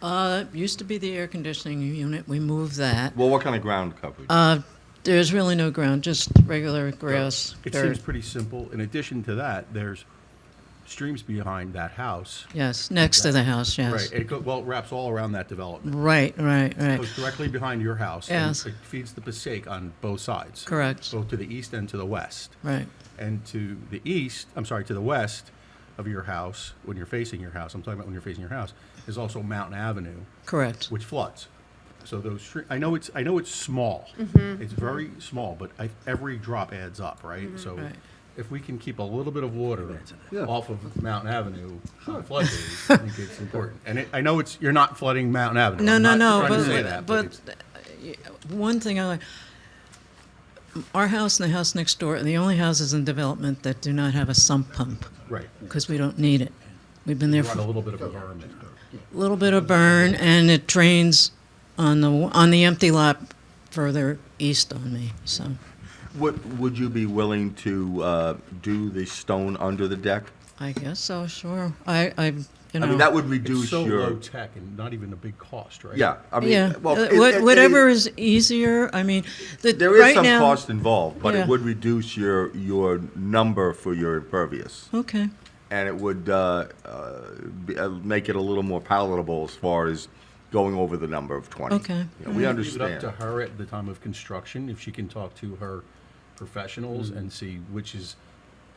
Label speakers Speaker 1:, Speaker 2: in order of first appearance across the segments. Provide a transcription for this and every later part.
Speaker 1: Uh, it used to be the air conditioning unit. We moved that.
Speaker 2: Well, what kind of ground coverage?
Speaker 1: Uh, there's really no ground, just regular grass,
Speaker 3: It seems
Speaker 1: dirt.
Speaker 3: pretty simple. In addition to that, there's streams behind that house.
Speaker 1: Yes, next to the house,
Speaker 3: Right,
Speaker 1: yes.
Speaker 3: it go, well, it wraps all around that development.
Speaker 1: Right, right,
Speaker 3: It
Speaker 1: right.
Speaker 3: goes directly behind your house. and
Speaker 1: Yes.
Speaker 3: It feeds the Passaic on both sides.
Speaker 1: Correct.
Speaker 3: Both to the east and to the west.
Speaker 1: Right,
Speaker 3: And to the east, I'm sorry, to the west of your house, when you're facing your house, I'm talking about when you're facing your house, is also Mountain Avenue,
Speaker 1: correct.
Speaker 3: which floods. So those, stre- I know it's, I know it's small.
Speaker 1: Mm-hmm.
Speaker 3: It's very small, but I, every drop adds up, right? So
Speaker 1: Right.
Speaker 3: if we can keep a little bit of water off of Mountain Avenue on flood days, I think it's important. And it, I know it's, you're not flooding Mountain Avenue.
Speaker 1: No,
Speaker 3: I'm
Speaker 1: no,
Speaker 3: not
Speaker 1: no,
Speaker 3: trying to say that,
Speaker 1: but, but
Speaker 3: it's-
Speaker 1: uh, one thing I like, our house and the house next door are the only houses in development that do not have a sump pump,
Speaker 3: Right,
Speaker 1: because we don't need it. We've been there
Speaker 3: run a
Speaker 1: for
Speaker 3: little bit of environment.
Speaker 1: little bit of burn, and it drains on the, on the empty lot further east on me, so.
Speaker 2: Would, would you be willing to uh, do the stone under the deck?
Speaker 1: I guess so, sure. I, I, you know.
Speaker 2: I mean, that would
Speaker 3: It's
Speaker 2: reduce
Speaker 3: so low
Speaker 2: your,
Speaker 3: tech and not even a big cost, right?
Speaker 2: yeah, I
Speaker 1: Yeah,
Speaker 2: mean, well.
Speaker 1: Uh,
Speaker 2: it-
Speaker 1: what-
Speaker 2: it- it-
Speaker 1: whatever is easier, I mean, the,
Speaker 2: There is
Speaker 1: right
Speaker 2: some
Speaker 1: now.
Speaker 2: cost involved, but
Speaker 1: Yeah.
Speaker 2: it would reduce your, your number for your impervious.
Speaker 1: Okay,
Speaker 2: And it would uh, uh, be- uh, make it a little more palatable as far as going over the number of 20.
Speaker 1: Okay.
Speaker 2: You know, We
Speaker 3: Leave it up
Speaker 2: understand.
Speaker 3: to her at the time of construction, if she can talk to her professionals
Speaker 2: Mm-hmm.
Speaker 3: and see which is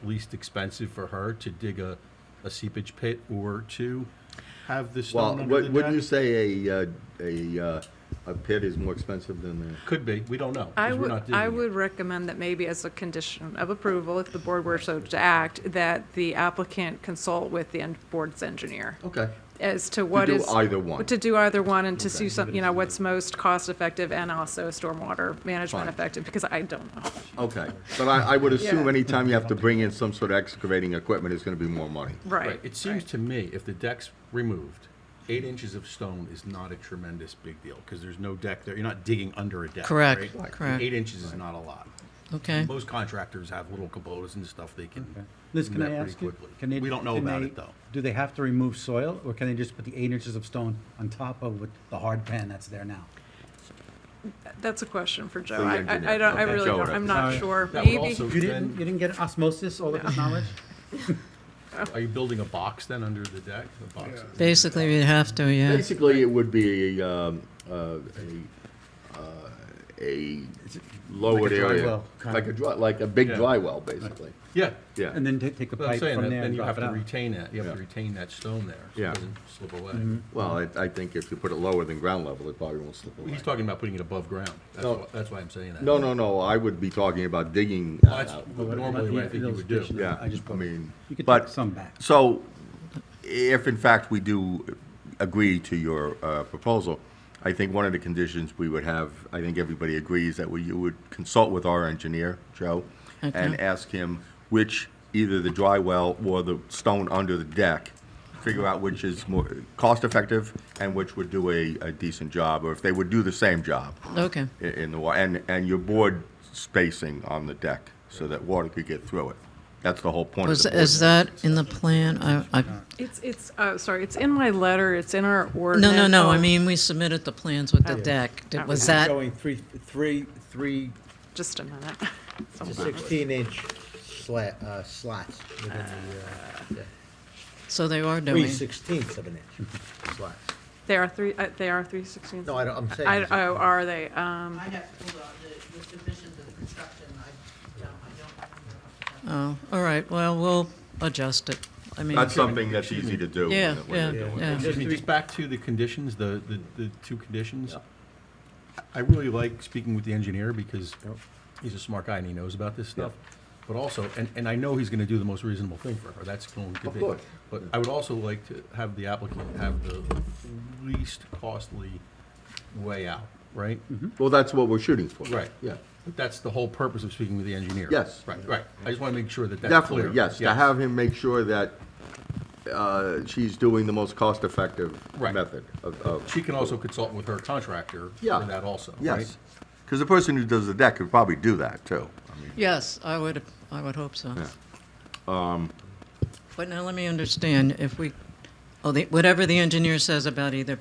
Speaker 3: least expensive for her to dig a, a seepage pit or to have the
Speaker 2: Well,
Speaker 3: stone under the
Speaker 2: would- wouldn't you
Speaker 3: deck.
Speaker 2: say a, uh, a, uh, a pit is more expensive than the?
Speaker 3: Could be, we don't know,
Speaker 4: I
Speaker 3: because we're
Speaker 4: would,
Speaker 3: not digging
Speaker 4: I
Speaker 3: it.
Speaker 4: would recommend that maybe as a condition of approval, if the board were so to act, that the applicant consult with the en- board's engineer
Speaker 2: Okay.
Speaker 4: as to what
Speaker 2: do
Speaker 4: is.
Speaker 2: either one.
Speaker 4: To do either one and to see some, you know, what's most cost-effective and also stormwater
Speaker 2: Fine.
Speaker 4: management effective, because I don't know.
Speaker 2: Okay, but I, I would assume
Speaker 4: Yeah.
Speaker 2: anytime you have to bring in some sort of excavating equipment, it's gonna be more money.
Speaker 4: Right.
Speaker 3: It seems to me, if the deck's removed, eight inches of stone is not a tremendous big deal, because there's no deck there, you're not digging under a deck,
Speaker 1: Correct,
Speaker 3: right? And
Speaker 1: correct.
Speaker 3: Eight inches is not a lot.
Speaker 1: okay.
Speaker 3: Most contractors have little Kubotas and stuff they can.
Speaker 5: Liz,
Speaker 3: do
Speaker 5: can I
Speaker 3: that pretty
Speaker 5: ask you?
Speaker 3: quickly.
Speaker 5: can they-
Speaker 3: We don't know
Speaker 5: can
Speaker 3: about
Speaker 5: they-
Speaker 3: it, though.
Speaker 5: Do they have to remove soil, or can they just put the eight inches of stone on top of with the hard pan that's there now?
Speaker 4: That's a question for Joe.
Speaker 2: the
Speaker 4: I, I-
Speaker 2: engineer.
Speaker 4: I don't, I
Speaker 2: Okay.
Speaker 4: really
Speaker 2: Joe would
Speaker 4: don't,
Speaker 2: have
Speaker 4: I'm
Speaker 2: to
Speaker 4: not
Speaker 5: say.
Speaker 4: sure.
Speaker 3: That would
Speaker 4: Maybe,
Speaker 3: also
Speaker 5: You
Speaker 3: then-
Speaker 5: didn't, you didn't get osmosis, all of this knowledge?
Speaker 3: Are you building a box then under the deck? A box?
Speaker 1: Basically, we'd have to, yeah.
Speaker 2: Basically, it would be, um, uh, a, uh, a lowered
Speaker 5: Like a dry
Speaker 2: area.
Speaker 5: well, kind
Speaker 2: Like a
Speaker 5: of.
Speaker 2: dry, like a big
Speaker 3: Yeah.
Speaker 2: dry well, basically,
Speaker 3: Yeah.
Speaker 2: yeah.
Speaker 5: And then ta- take the
Speaker 3: But I'm
Speaker 5: pipe
Speaker 3: saying
Speaker 5: from
Speaker 3: that
Speaker 5: there
Speaker 3: then
Speaker 5: and
Speaker 3: you have
Speaker 5: drop it
Speaker 3: to
Speaker 5: out?
Speaker 3: retain that, you have to
Speaker 2: Yeah.
Speaker 3: retain that stone there. so
Speaker 2: Yeah.
Speaker 3: It doesn't slip away.
Speaker 5: Mm-hmm.
Speaker 2: Well, I, I think if you put it lower than ground level, it probably won't slip away.
Speaker 3: He's talking about putting it above ground. That's
Speaker 2: No.
Speaker 3: why, that's why I'm saying that.
Speaker 2: No, no, no, I would be talking about digging
Speaker 3: Well,
Speaker 2: that
Speaker 3: That's
Speaker 2: out.
Speaker 5: But what about
Speaker 3: normally what I
Speaker 5: the-
Speaker 3: think you
Speaker 5: those
Speaker 3: would do.
Speaker 5: additional-
Speaker 2: Yeah,
Speaker 5: Oh, I just
Speaker 2: I
Speaker 5: put,
Speaker 2: mean,
Speaker 5: you could
Speaker 2: but-
Speaker 5: take some back.
Speaker 2: So, if in fact we do agree to your uh, proposal, I think one of the conditions we would have, I think everybody agrees, that we, you would consult with our engineer, Joe, and ask him which, either the dry well or the stone under the deck, figure out which is more cost-effective and which would do a a decent job, or if they would do the same job
Speaker 1: Okay,
Speaker 2: i- in the water, and, and your board spacing on the deck so that water could get through it. That's the whole point of
Speaker 1: was,
Speaker 2: the board.
Speaker 1: is that in the plan? I, I,
Speaker 4: it's, it's, uh, sorry, it's in my letter, it's in our
Speaker 1: no,
Speaker 4: ordinance.
Speaker 1: no, no, I mean, we submitted the plans with the deck. Did- Was that,
Speaker 6: Showing three, three, three
Speaker 4: Just a minute.
Speaker 6: to sixteen inch slat, uh, slots within the, uh,
Speaker 1: so they are doing?
Speaker 6: three sixteenths of an inch slots.
Speaker 4: They are three, uh, they are three sixteenths.
Speaker 6: No, I don't, I'm saying.
Speaker 4: I,
Speaker 6: is it-
Speaker 4: oh, are they? Um,
Speaker 7: I have, hold on, the, the divisions of construction, I don't, I don't remember off the top of my
Speaker 1: Oh, all right, well, we'll adjust it. I mean,
Speaker 2: That's something that's easy to do. when
Speaker 1: yeah,
Speaker 2: you're- when
Speaker 1: yeah,
Speaker 2: you're doing it.
Speaker 1: yeah.
Speaker 3: Excuse me, just back to the conditions, the, the, the two conditions. I really like speaking with the engineer because he's a smart guy and he knows about this stuff. But also, and, and I know he's gonna do the most reasonable thing for her, that's going to
Speaker 2: Of
Speaker 3: be.
Speaker 2: course.
Speaker 3: But I would also like to have the applicant have the least costly way out, right?
Speaker 2: Well, that's what we're shooting for.
Speaker 3: Right.
Speaker 2: Yeah.
Speaker 3: But that's the whole purpose of speaking with the engineer.
Speaker 2: Yes.
Speaker 3: Right, right. I just wanna make sure that that's clear.
Speaker 2: Definitely, yes, to have him make sure that uh, she's doing the most cost-effective
Speaker 3: Right.
Speaker 2: method of, of,
Speaker 3: She can also consult with her contractor
Speaker 2: Yeah.
Speaker 3: for that also, right?
Speaker 2: yes. Because the person who does the deck could probably do that, too. I mean,
Speaker 1: Yes, I would, I would hope so.
Speaker 2: Yeah.
Speaker 1: But now let me understand, if we, oh, the- whatever the engineer says about either